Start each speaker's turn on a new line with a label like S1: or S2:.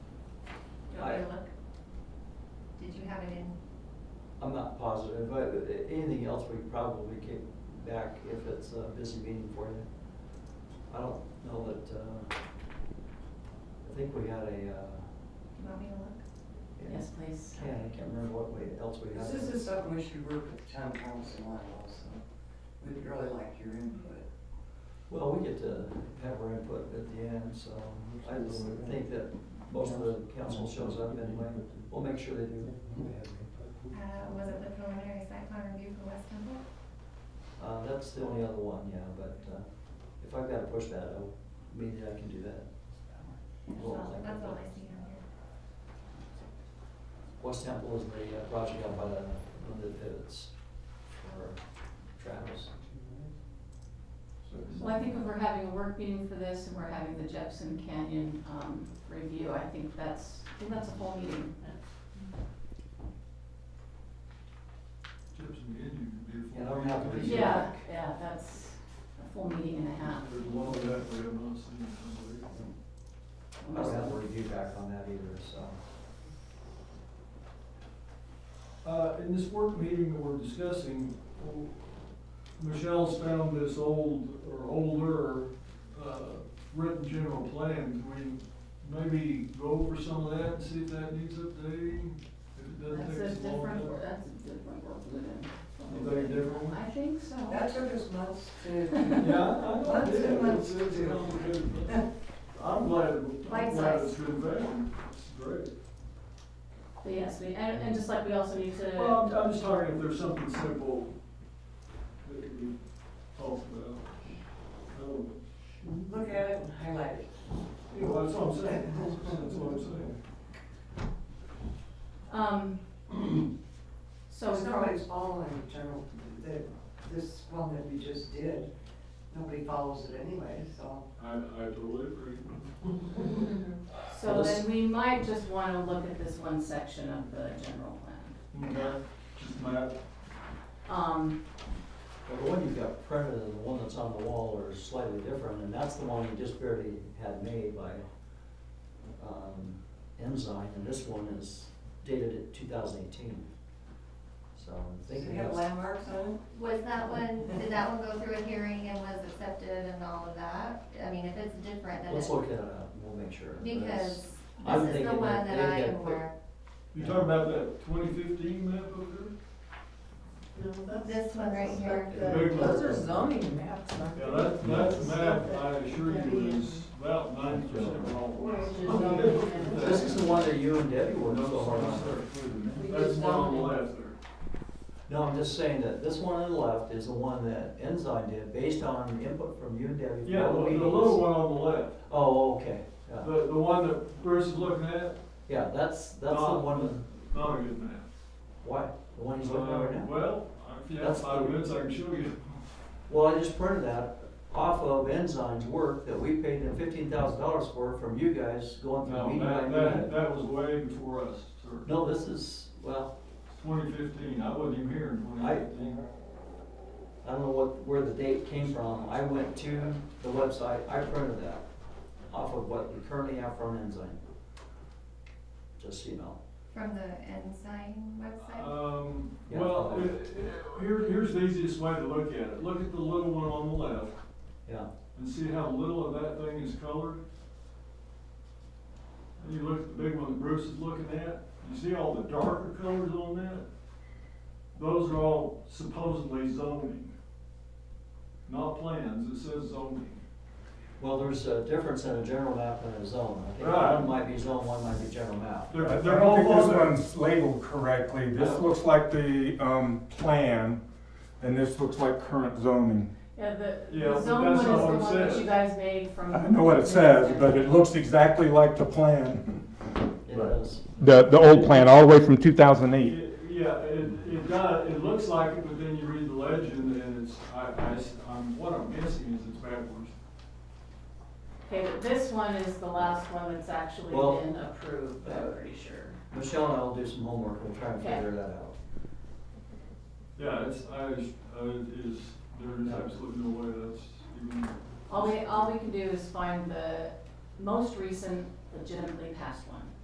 S1: have it in.
S2: I'm not positive, but anything else we probably kick back if it's a busy meeting for you. I don't know that, uh, I think we had a, uh.
S1: Do you want me to look?
S3: Yes, please.
S2: Yeah, I can't remember what we, else we had.
S4: This is something we should work with the town council on also. We'd really like your input.
S2: Well, we get to have our input at the end, so I just think that most of the council shows up anyway. We'll make sure they do.
S1: Uh, was it the preliminary site plan review for West Temple?
S2: Uh, that's the only other one, yeah, but, uh, if I've gotta push that out, maybe I can do that.
S1: That's
S2: Well,
S1: all,
S2: like-
S1: that's all I see on here.
S2: West Temple is the uh, project out by the, one of the pivots for Travis.
S3: Well, I think if we're having a work meeting for this and we're having the Jepson Canyon, um, review, I think that's, I think that's a whole meeting.
S5: Chips and Indian can be a
S2: Yeah,
S5: full
S2: I'm happy
S5: meeting.
S2: with you.
S3: Yeah, yeah, that's a full meeting and a half.
S5: There's a lot of that we have not seen, I believe.
S2: I don't have a review back on that either, so.
S5: Uh, in this work meeting that we're discussing, Michelle's found this old, or older, uh, written general plan. Can we maybe go over some of that and see if that needs updating? If it doesn't
S3: That's
S5: take
S3: a
S5: us long
S3: different, wor-
S5: enough.
S3: that's a different work meeting.
S5: Anybody different one?
S3: I think so.
S4: That took us months to.
S5: Yeah, I know,
S4: Months
S5: it
S4: and
S5: is.
S4: months
S5: It's-
S4: to
S5: it's
S4: do.
S5: complicated, but I'm glad, I'm
S1: Bite
S5: glad
S1: size.
S5: it's been done. It's great.
S2: Uh,
S3: But yes, we, and, and just like we also need to.
S5: Well, I'm, I'm just talking if there's something simple that could be talked about. Um,
S4: Look at it and highlight it.
S5: You know, that's what I'm saying, that's what I'm saying.
S3: Um, so.
S4: It's not like it's all in general, that, this one that we just did, nobody follows it anyway, so.
S5: I, I totally agree.
S3: So then we might just wanna look at this one section of the general plan.
S5: Okay, just map.
S3: Um,
S2: Well, the one you've got printed and the one that's on the wall are slightly different, and that's the one we just barely had made by, um, Ensign, and this one is dated at two thousand eighteen. So I'm
S4: Does it
S2: thinking
S4: have
S2: that's.
S4: landmarks on
S1: Was that one, did that one go through a hearing and was accepted and all of that? I mean, if it's different, then
S2: Let's
S1: it's,
S2: look at it up, we'll make sure. but
S1: because
S2: it's- I'm
S1: this is the
S2: thinking
S1: one
S2: that
S1: that
S2: they
S1: I
S2: had
S1: am
S2: put-
S1: aware.
S5: You talking about that twenty fifteen map over
S1: of. This one right here,
S5: there? Big one.
S6: Those are zoning maps, aren't they?
S5: Yeah, that, that map, I assure you, is about ninety percent wrong.
S2: This is the one that you and Debbie were so hard on.
S5: That's one on the left there.
S2: No, I'm just saying that this one on the left is the one that Ensign did, based on input from you and Debbie.
S5: Yeah,
S2: from all
S5: the
S2: the
S5: the little
S2: meetings.
S5: one on the left,
S2: Oh, okay, yeah,
S5: the, the one that Bruce is looking at,
S2: yeah, that's, that's the
S5: Uh,
S2: one,
S5: not a good map.
S2: why, the one he's looking at right
S5: Uh,
S2: now?
S5: Well, if you have
S2: That's
S5: five
S2: the-
S5: minutes, I can show you.
S2: Well, I just printed that off of Ensign's work that we paid them fifteen thousand dollars for from you guys going through
S5: No,
S2: meeting by
S5: that, that,
S2: meeting.
S5: that was way before us, sir.
S2: No, this is, well,
S5: Twenty fifteen, I wasn't even here in
S2: I-
S5: twenty fifteen.
S2: I don't know what, where the date came from. I went to the website, I printed that off of what we currently have from Ensign. Just so you know.
S1: from the Ensign website.
S5: Um,
S2: Yeah.
S5: well, it- it- here, here's the easiest way to look at it. Look at the little one on the left
S2: Yeah,
S5: and see how little of that thing is colored. And you look at the big one that Bruce is looking at, you see all the darker colors on that? Those are all supposedly zoning, not plans. It says zoning.
S2: well, there's a difference in a general map and a zone. I think
S5: Right.
S2: one might be zone, one might be general map.
S5: They're,
S7: I
S5: they're
S7: don't
S5: all
S7: think this
S5: on there.
S7: one's labeled correctly. This looks like the, um, plan, and this looks like current zoning.
S3: yeah, the,
S5: Yeah,
S3: the
S5: but
S3: zone one
S5: that's
S3: is the
S5: not what it
S3: one that
S5: says.
S3: you guys made from.
S7: I know what it says, but it looks exactly like the plan.
S2: It is.
S7: The, the old plan, all the way from two thousand eight.
S5: It- Yeah, it, it does, it looks like it, but then you read the legend and it's, I, I, am what I'm missing is it's backwards.
S3: Okay, but this one is the last one that's actually
S2: Well-
S3: been approved, I'm pretty sure.
S2: Michelle and I will do some homework. We'll try and
S3: Okay.
S2: figure that out.
S5: Yeah, it's, I, uh, it is, there is absolutely no way that's even,
S3: All we, all we can do is find the most recent legitimately passed one.